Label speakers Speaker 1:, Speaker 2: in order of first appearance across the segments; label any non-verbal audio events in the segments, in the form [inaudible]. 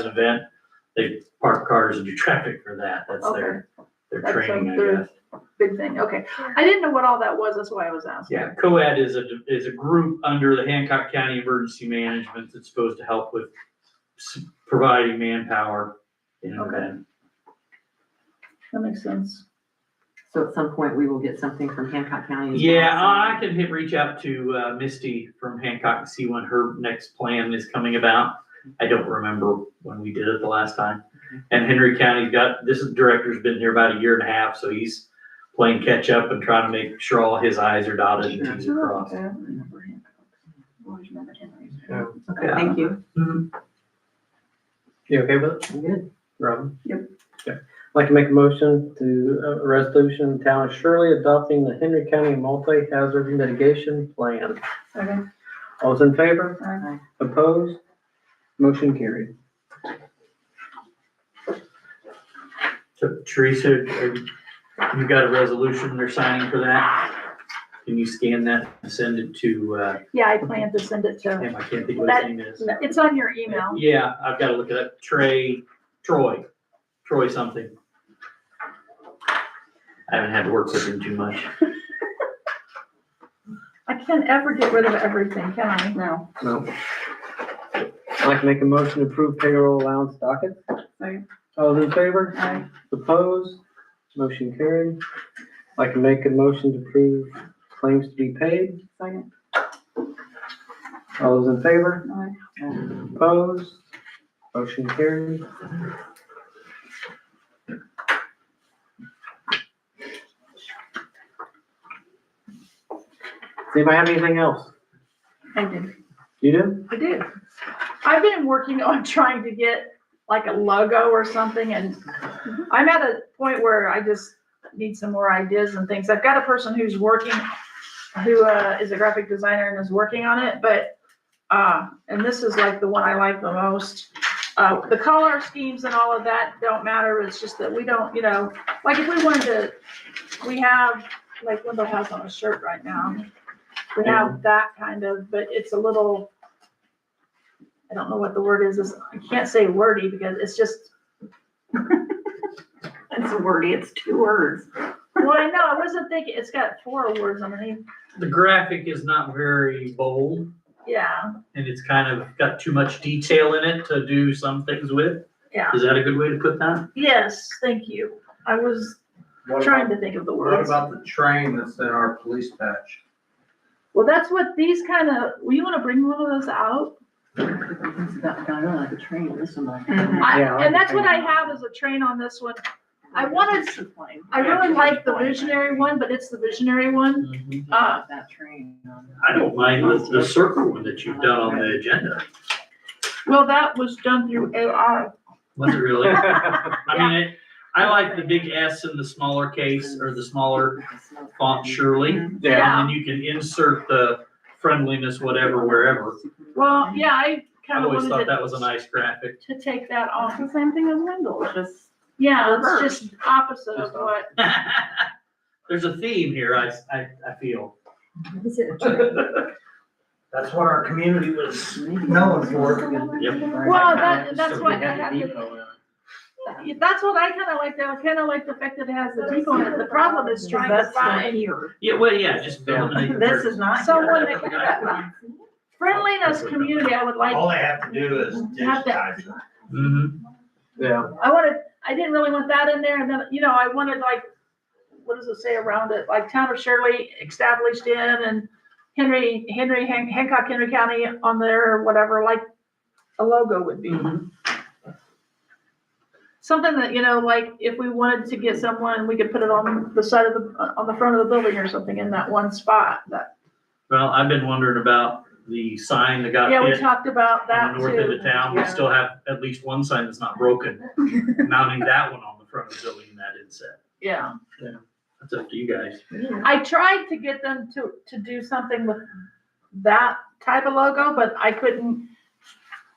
Speaker 1: an event, they park cars and do traffic for that. That's their, their
Speaker 2: That's like
Speaker 1: training, I
Speaker 2: their-
Speaker 1: guess.
Speaker 2: Big thing, okay. I didn't know what all that was, that's why I was asking.
Speaker 1: Yeah, COAD is a, is a group under the Hancock County Emergency Management that's supposed to help with s- providing manpower in an
Speaker 2: Okay.
Speaker 1: event.
Speaker 2: That makes sense.
Speaker 3: So at some point, we will get something from Hancock County. as well,
Speaker 1: Yeah,
Speaker 3: so-
Speaker 1: I I can hit, reach out to uh, Misty from Hancock and see when her next plan is coming about. I don't remember when we did it the last time. And Henry County's got, this director's been here about a year and a half, so he's playing catch up and trying to make sure all his i's are dotted and t's are crossed.
Speaker 2: Okay. I remember him. I always remember Henry's.
Speaker 3: Okay, thank you.
Speaker 1: Mhm.
Speaker 4: You okay with it,
Speaker 3: I'm good.
Speaker 4: Robin?
Speaker 2: Yep.
Speaker 4: Okay. I'd like to make a motion to, uh, a resolution, town of Shirley adopting the Henry County multi-hazard mitigation plan.
Speaker 2: Okay,
Speaker 4: All those in favor?
Speaker 2: all right.
Speaker 4: Opposed? Motion carried.
Speaker 1: So Teresa, are- you got a resolution they're signing for that? Can you scan that and send it to, uh,
Speaker 2: Yeah, I plan to send it to,
Speaker 1: damn, I can't think of what his name is.
Speaker 2: it's on your email.
Speaker 1: Yeah, I've got to look it up. Trey, Troy, Troy something. I haven't had to work with him too much.
Speaker 2: I can't ever get rid of everything, can I? No.
Speaker 4: No. I'd like to make a motion to approve payroll allowance docket.
Speaker 2: Second.
Speaker 4: All those in favor?
Speaker 2: Aye.
Speaker 4: Opposed? Motion carried. I'd like to make a motion to approve claims to be paid.
Speaker 2: Second.
Speaker 4: All those in favor?
Speaker 2: Aye.
Speaker 4: Opposed? Motion carried. Does anybody have anything else?
Speaker 2: I did,
Speaker 4: You do?
Speaker 2: [laughs] I did. I've been working on [laughs] trying to get like a logo or something and I'm at a point where I just need some more ideas and things. I've got a person who's working, who uh, is a graphic designer and is working on it, but, uh, and this is like the one I like the most. Uh, the color schemes and all of that don't matter. It's just that we don't, you know, like if we wanted to, we have, like Wendell has on a shirt right now. We have that kind of, but it's a little, I don't know what the word is. It's- I can't say wordy because it's just,
Speaker 5: It's wordy, it's two words.
Speaker 2: Well, I know, I wasn't thinking, it's got four words underneath,
Speaker 1: The graphic is not very bold
Speaker 2: yeah,
Speaker 1: and it's kind of got too much detail in it to do some things with.
Speaker 2: yeah,
Speaker 1: Is that a good way to put that?
Speaker 2: yes, thank you. I was
Speaker 6: What
Speaker 2: trying
Speaker 6: about-
Speaker 2: to think of the
Speaker 6: What
Speaker 2: words.
Speaker 6: about the train that's in our police patch?
Speaker 2: Well, that's what these kind of, well, you wanna bring one of those out?
Speaker 5: It's not, not really like a train, this one like.
Speaker 2: I,
Speaker 4: Yeah, I
Speaker 2: and that's
Speaker 4: can
Speaker 2: what I
Speaker 4: hang on.
Speaker 2: have is a train on this one. I wanted,
Speaker 5: It's a plane.
Speaker 2: I really like the visionary one, but it's the visionary one,
Speaker 1: Mm-hmm.
Speaker 2: uh,
Speaker 5: That train. on it.
Speaker 1: I don't mind the, the circle one that you've done on the agenda.
Speaker 2: well, that was done through AI.
Speaker 1: Was it
Speaker 2: [laughs]
Speaker 1: really? I mean, it- I like the big S in the smaller case or the smaller font surely.
Speaker 2: Mm-hmm. Yeah.
Speaker 1: And then you can insert the friendliness, whatever, wherever.
Speaker 2: Well, yeah, I
Speaker 1: I
Speaker 2: kinda
Speaker 1: always
Speaker 2: wanted
Speaker 1: thought
Speaker 2: to,
Speaker 1: that was a nice graphic.
Speaker 2: to take that
Speaker 5: It's
Speaker 2: off.
Speaker 5: the same thing as Wendell, it's just.
Speaker 2: Yeah, it's
Speaker 5: Reversed.
Speaker 2: just opposite of what
Speaker 1: [laughs] There's a theme here, I, I, I feel.
Speaker 5: Is it
Speaker 6: That's what our community was known for.
Speaker 2: Well, that, that's
Speaker 4: So
Speaker 2: why I
Speaker 4: we had
Speaker 2: have
Speaker 4: the
Speaker 2: to,
Speaker 4: depot in it.
Speaker 2: that's what I kinda like, though. I kinda like the fact that it has the depot in it, the problem is trying to find
Speaker 5: here.
Speaker 1: [laughs] Yeah, well, yeah, just
Speaker 4: Yeah.
Speaker 1: eliminate the
Speaker 5: This
Speaker 1: words.
Speaker 5: is not.
Speaker 2: someone
Speaker 5: here.
Speaker 2: that can
Speaker 1: [laughs]
Speaker 2: Friendliness community, I would like,
Speaker 6: All they have to do is
Speaker 2: Have that.
Speaker 6: digitize it.
Speaker 1: Mhm.
Speaker 4: Yeah,
Speaker 2: I wanted, I didn't really want that in there, and then, you know, I wanted like, what does it say around it, like town of Shirley established in, and Henry, Henry, Han- Hancock, Henry County on there, or whatever, like, a logo would be.
Speaker 1: Mhm.
Speaker 2: Something that, you know, like if we wanted to get someone, we could put it on the side of the, on the front of the building or something in that one spot. That,
Speaker 1: Well, I've been wondering about the sign that got
Speaker 2: yeah, we
Speaker 1: hit
Speaker 2: talked about
Speaker 1: on
Speaker 2: that
Speaker 1: the
Speaker 2: too.
Speaker 1: north end of town. We
Speaker 2: Yeah.
Speaker 1: still have at least one sign that's not
Speaker 2: [laughs]
Speaker 1: broken. Mounting that one on the front of the building, that inset.
Speaker 2: Yeah.
Speaker 1: That's up to you guys.
Speaker 2: I tried to get them to, to do something with that type of logo, but I couldn't.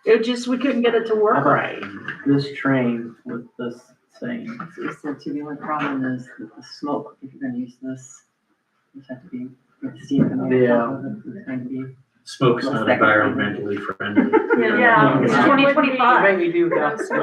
Speaker 2: It just, we couldn't get it to work right.
Speaker 4: this train with this thing.
Speaker 5: So you said to me, one problem is that the smoke, if you're gonna use this, you have to be, you have to see it coming out of the thing to be. smoke's not environmentally friendly.
Speaker 1: Yeah, it's [laughs]
Speaker 5: Yeah.
Speaker 1: twenty twenty-five.
Speaker 4: Maybe do that.